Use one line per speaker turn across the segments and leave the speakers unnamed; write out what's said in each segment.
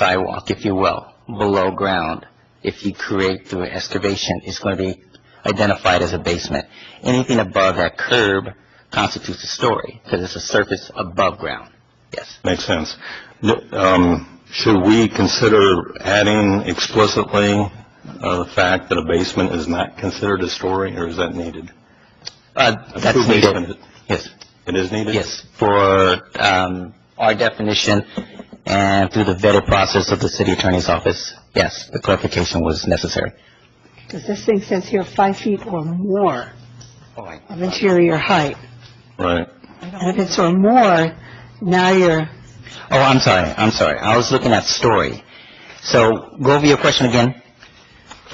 sidewalk, if you will, below ground, if you create through excavation, is going to be identified as a basement. Anything above that curb constitutes a story, because it's a surface above ground. Yes.
Makes sense. N- um, Should we consider adding explicitly uh, the fact that a basement is not considered a story, or is that needed?
Uh,
A
that's
true
needed.
basement,
Yes,
It is needed?
yes, for, um, our definition and through the vetted process of the city attorney's office, yes, the clarification was necessary.
Because this thing says here five feet or more
Right.
of interior height.
Right.
And if it's or more, now you're,
Oh, I'm sorry, I'm sorry, I was looking at story. So, go over your question again.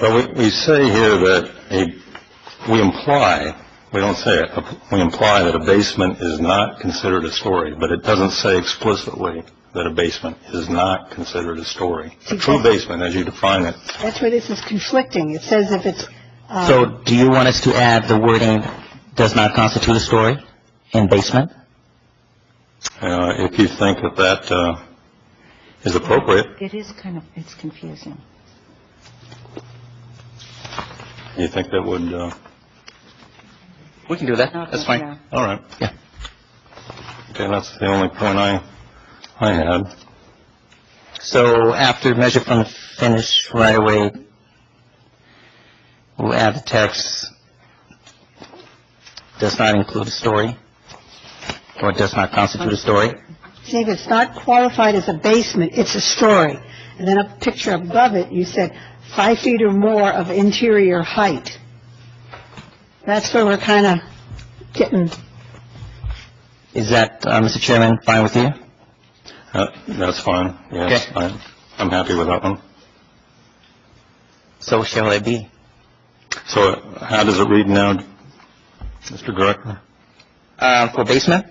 Well, we, we say here that a, we imply, we don't say it, we imply that a basement is not considered a story, but it doesn't say explicitly that a basement is not considered a story. A true basement, as you define it,
that's where this is conflicting. It says if it's,
So,
uh,
do you want us to add the wording "does not constitute a story" in basement?
uh, if you think that that, uh, is appropriate,
It is kind of, it's confusing.
do you think that would, uh,
We can do that,
Not
that's
right
fine.
now.
all right.
Yeah.
Okay, that's the only point I, I had.
So, after measure from the finish right away, we'll add the text, "does not include a story" or "does not constitute a story."
see, if it's not qualified as a basement, it's a story. And then a picture above it, you said five feet or more of interior height. That's where we're kind of getting,
Is that, uh, Mr. Chairman, fine with you?
Uh, That's fine, yes.
Okay.
I- I'm happy with that one.
So shall it be.
So uh, how does it read now, Mr. Director?
Uh, For basement?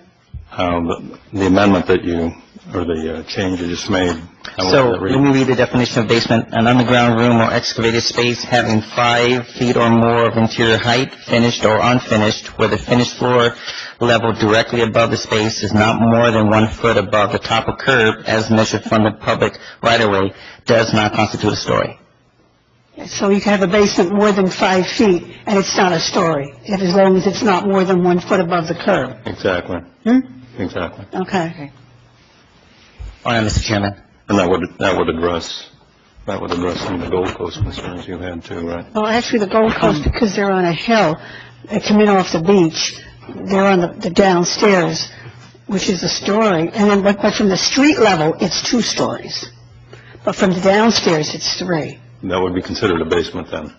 Uh, The the amendment that you, or the uh, change you just made? how would
So,
that read?
let me read the definition of basement. An underground room or excavated space having five feet or more of interior height, finished or unfinished, where the finished floor level directly above the space is not more than one foot above the top of curb as measured from the public right-of-way, does not constitute a story.
so you can have a basement more than five feet, and it's not a story, if as long as it's not more than one foot above the curb.
Exactly,
Hmm?
exactly.
Okay.
All right, Mr. Chairman.
And that would, that would address, that would address some of the Gold Coast concerns you had too, right?
Well, actually, the Gold Coast, because they're on a hill, they come in off the beach, they're on the- the downstairs, which is a story, and then, but but from the street level, it's two stories, but from the downstairs, it's three.
That would be considered a basement then,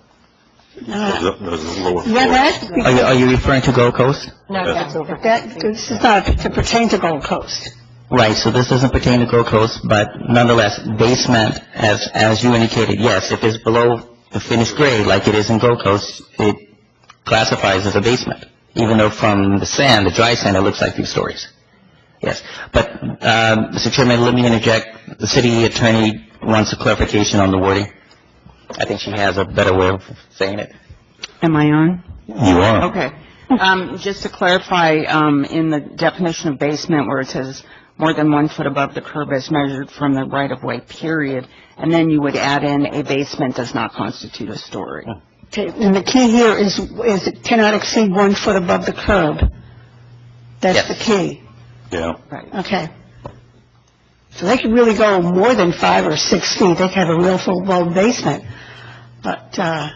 those
Uh,
those lower floors.
Yeah, that,
Are you, are you referring to Gold Coast?
No,
Yes.
that's over.
that, this is not to pertain to Gold Coast.
Right, so this doesn't pertain to Gold Coast, but nonetheless, basement, as, as you indicated, yes, if it's below the finished grade, like it is in Gold Coast, it classifies as a basement, even though from the sand, the dry sand, it looks like three stories. Yes, but, um, Mr. Chairman, let me interject, the city attorney wants a clarification on the wording. I think she has a better way of saying it.
Am I on?
You are.
Okay. Um, Just to clarify, um, in the definition of basement where it says more than one foot above the curb as measured from the right-of-way, period, and then you would add in a basement does not constitute a story.
Okay, And the key here is, is it cannot exceed one foot above the curb. That's the
Yes.
key,
Yeah.
Right.
okay. So they could really go more than five or six feet, they could have a real full-blown basement, but, uh,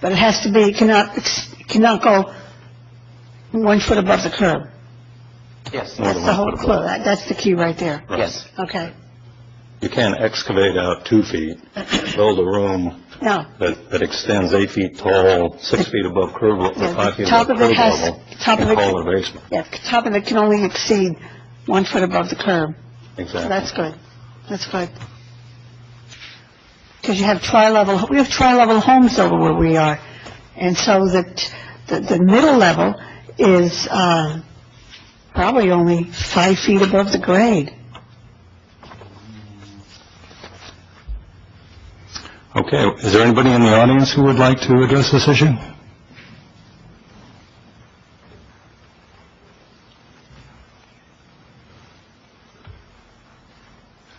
but it has to be, it cannot, ex- it cannot go one foot above the curb.
Yes.
More
That's
than
the
one
whole
foot
clue,
above.
That- that's the key right there,
Right.
Yes,
okay.
You can't excavate out two feet, build a room
Now,
that, that extends eight feet tall, six feet above curb, le-
Yeah,
or five
the
feet
top
above curb
of it has-
level,
top of
and
it-
call it a basement.
yeah, the top of it can only exceed one foot above the curb. So
Exactly.
That's good. That's good. Because you have tri-level, we have tri-level homes over where we are. And so that, the, the middle level is, uh, probably only five feet above the grade.
Okay, is there anybody in the audience who would like to address this issue?